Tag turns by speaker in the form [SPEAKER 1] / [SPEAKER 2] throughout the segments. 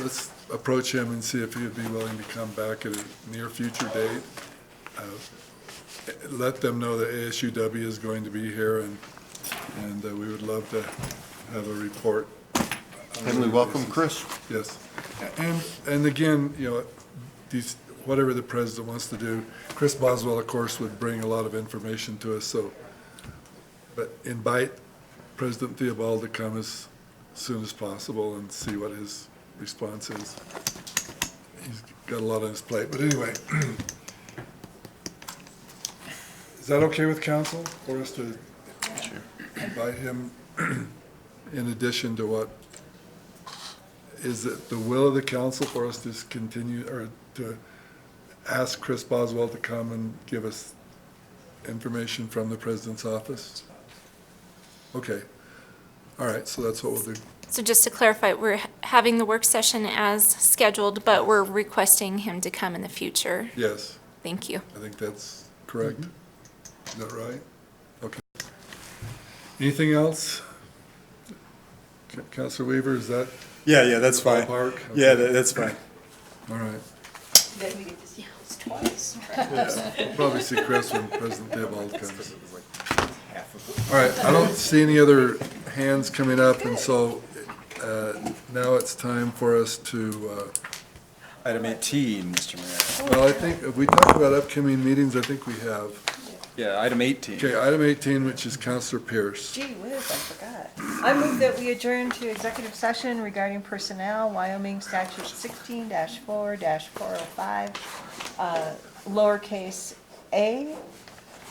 [SPEAKER 1] let's approach him and see if he'd be willing to come back at a near future date. Uh, Let them know that ASUW is going to be here, and, and uh, we would love to have a report.
[SPEAKER 2] Can we welcome Chris?
[SPEAKER 1] Yes. And, and again, you know, these, whatever the president wants to do, Chris Boswell, of course, would bring a lot of information to us, so. But invite President Theobald to come as soon as possible and see what his response is. He's got a lot on his plate, but anyway. Is that okay with council, for us to invite him in addition to what is it the will of the council for us to continue, or to ask Chris Boswell to come and give us information from the president's office? Okay. All right, so that's what we'll do.
[SPEAKER 3] So just to clarify, we're h- having the work session as scheduled, but we're requesting him to come in the future.
[SPEAKER 1] Yes,
[SPEAKER 3] Thank you.
[SPEAKER 1] I think that's correct. Is that right? Okay. Anything else? C- Counselor Weaver, is that
[SPEAKER 4] Yeah, yeah, that's fine.
[SPEAKER 1] ballpark?
[SPEAKER 4] Yeah, tha- that's fine.
[SPEAKER 1] All right.
[SPEAKER 5] Then we get to see house twice.
[SPEAKER 1] We'll Probably see Chris when President Theobald comes. All right, I don't see any other hands coming up, and so uh, now it's time for us to,
[SPEAKER 2] Item 18, Mr.
[SPEAKER 1] uh,
[SPEAKER 2] Mayor.
[SPEAKER 1] well, I think, if we talked about upcoming meetings, I think we have.
[SPEAKER 2] Yeah, item 18.
[SPEAKER 1] Okay, item 18, which is Counselor Pierce.
[SPEAKER 5] Gee whiz, I forgot. I move that we adjourn to executive session regarding personnel, Wyoming statute sixteen four four oh five, uh, lowercase a,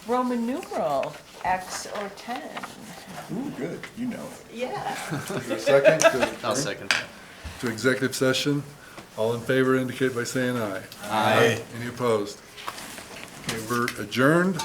[SPEAKER 5] Roman numeral X or ten.
[SPEAKER 2] Ooh, good, you know
[SPEAKER 5] Yeah.
[SPEAKER 1] Is there a second to-
[SPEAKER 6] I'll second.
[SPEAKER 1] to executive session? All in favor indicate by saying aye.
[SPEAKER 2] it. Aye.
[SPEAKER 1] Any opposed? Okay, we're adjourned.